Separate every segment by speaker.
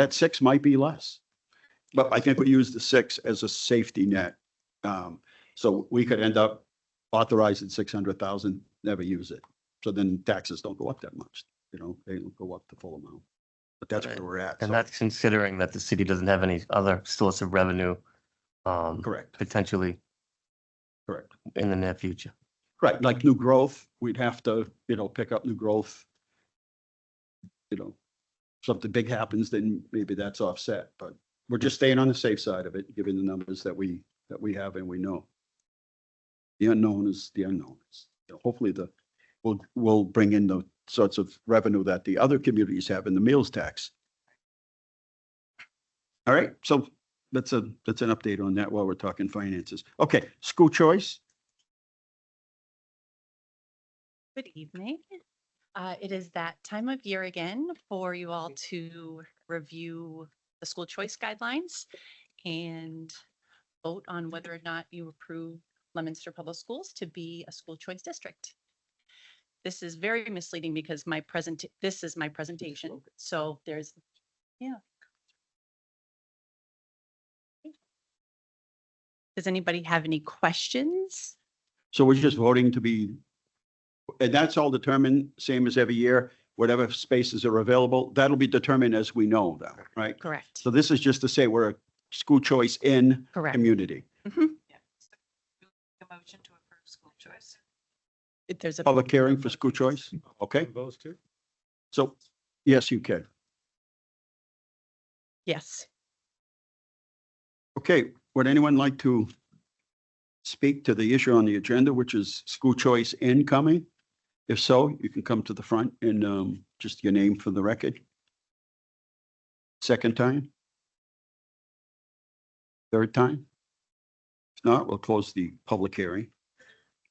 Speaker 1: that six might be less. But I think we use the six as a safety net. Um, so we could end up authorizing six hundred thousand, never use it. So then taxes don't go up that much, you know, they don't go up the full amount. But that's where we're at.
Speaker 2: And
Speaker 1: so-
Speaker 2: that's considering that the city doesn't have any other source of revenue, um,
Speaker 1: Correct,
Speaker 2: potentially
Speaker 1: correct.
Speaker 2: in the near future.
Speaker 1: Right, like new growth, we'd have to, you know, pick up new growth. You know, something big happens, then maybe that's offset, but we're just staying on the safe side of it, given the numbers that we, that we have and we know. The unknown is the unknown. It's- you know, Hopefully the, we'll, we'll bring in the sorts of revenue that the other communities have in the meals tax. All right, so that's a, that's an update on that while we're talking finances. Okay, school choice.
Speaker 3: Good evening. Uh, It is that time of year again for you all to review the school choice guidelines and vote on whether or not you approve Leominster Public Schools to be a school choice district. This is very misleading because my present, this is my presentation, so there's, yeah. Does anybody have any questions?
Speaker 1: So we're just voting to be, and that's all determined, same as every year, whatever spaces are available, that'll be determined as we know that, right?
Speaker 3: Correct.
Speaker 1: So this is just to say we're a school choice in
Speaker 3: Correct.
Speaker 1: community.
Speaker 4: A motion to approve school choice.
Speaker 3: If There's a.
Speaker 1: Public hearing for school choice, okay?
Speaker 5: Those two?
Speaker 1: So, yes, you can.
Speaker 3: Yes.
Speaker 1: Okay, would anyone like to speak to the issue on the agenda, which is school choice incoming? If so, you can come to the front and um, just your name for the record. Second time? Third time? If not, we'll close the public hearing.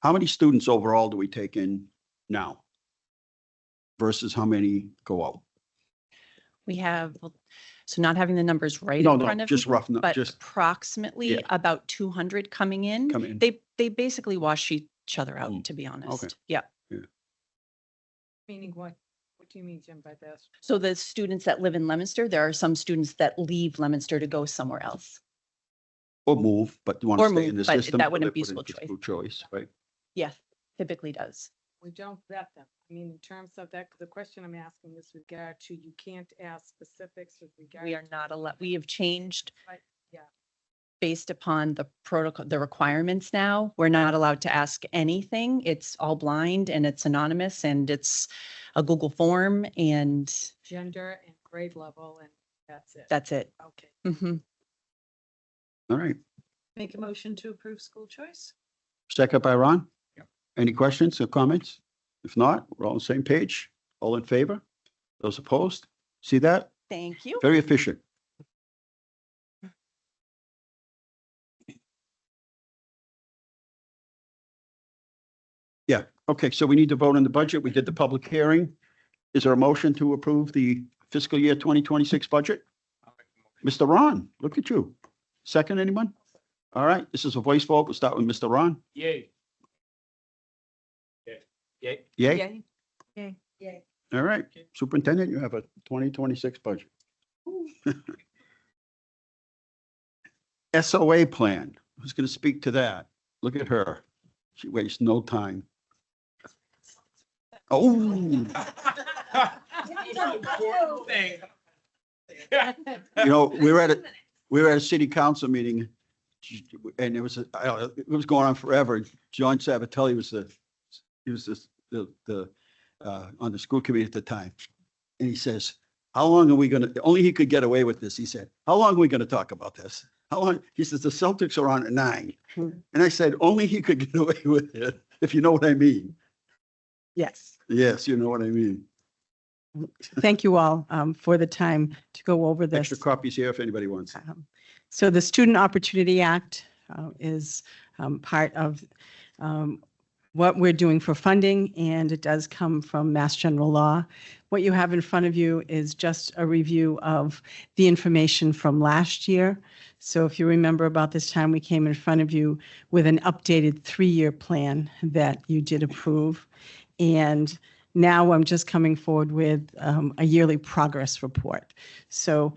Speaker 1: How many students overall do we take in now? Versus how many go out?
Speaker 3: We have, so not having the numbers right
Speaker 1: No,
Speaker 3: in front
Speaker 1: no,
Speaker 3: of
Speaker 1: just
Speaker 3: me,
Speaker 1: rough, nu-
Speaker 3: but
Speaker 1: just
Speaker 3: approximately
Speaker 1: yeah.
Speaker 3: about two hundred coming in.
Speaker 1: come in.
Speaker 3: They, they basically wash each other
Speaker 1: Mm,
Speaker 3: out, to be honest. Yeah.
Speaker 4: Meaning what? What do you mean, Jim, by this?
Speaker 3: So the students that live in Leominster, there are some students that leave Leominster to go somewhere else.
Speaker 1: Or move, but want
Speaker 3: Or
Speaker 1: to stay in
Speaker 3: move,
Speaker 1: the
Speaker 3: but
Speaker 1: system.
Speaker 3: that
Speaker 1: so
Speaker 3: wouldn't
Speaker 1: they
Speaker 3: be
Speaker 1: put in
Speaker 3: school
Speaker 1: for
Speaker 3: choice.
Speaker 1: choice, right?
Speaker 3: Yes, typically does.
Speaker 4: We don't vet them. I mean, in terms of that, the question I'm asking is regard to, you can't ask specifics with regard.
Speaker 3: We are
Speaker 4: to-
Speaker 3: not allowed, we have changed
Speaker 4: Right, yeah.
Speaker 3: based upon the protocol, the requirements now. We're not allowed to ask anything. It's all blind and it's anonymous and it's a Google form and
Speaker 4: Gender and grade level and that's it.
Speaker 3: that's it.
Speaker 4: Okay.
Speaker 3: hmm
Speaker 1: All right.
Speaker 4: Make a motion to approve school choice?
Speaker 1: Second by Ron? Any questions or comments? If not, we're all on the same page. All in favor? Those opposed? See that?
Speaker 3: Thank you.
Speaker 1: Very efficient. Yeah, okay, so we need to vote on the budget. We did the public hearing. Is there a motion to approve the fiscal year 2026 budget? Mr. Ron, look at you. Second, anyone? All right, this is a voice vote. We'll start with Mr. Ron.
Speaker 5: Yay. Yeah, yay.
Speaker 1: Yay?
Speaker 4: Yay. Yay.
Speaker 1: All right, Superintendent, you have a twenty twenty-six budget. SOA plan, who's gonna speak to that? Look at her. She wastes no time. Oh,
Speaker 5: Important thing.
Speaker 1: you know, we were at a, we were at a city council meeting and it was, a- I don't know, it was going on forever. John Sabatelli was the, he was the- the, the, uh, on the school committee at the time. And he says, how long are we gonna, only he could get away with this. He said, how long are we gonna talk about this? How long? He says, the Celtics are on at nine. And I said, only he could get away with it, if you know what I mean.
Speaker 6: Yes,
Speaker 1: Yes, you know what I mean.
Speaker 6: thank you all um, for the time to go over this.
Speaker 1: Extra copies here if anybody wants.
Speaker 6: Um, So the Student Opportunity Act uh, is um, part of um, what we're doing for funding, and it does come from Mass General Law. What you have in front of you is just a review of the information from last year. So if you remember about this time, we came in front of you with an updated three-year plan that you did approve. And Now I'm just coming forward with um, a yearly progress report. So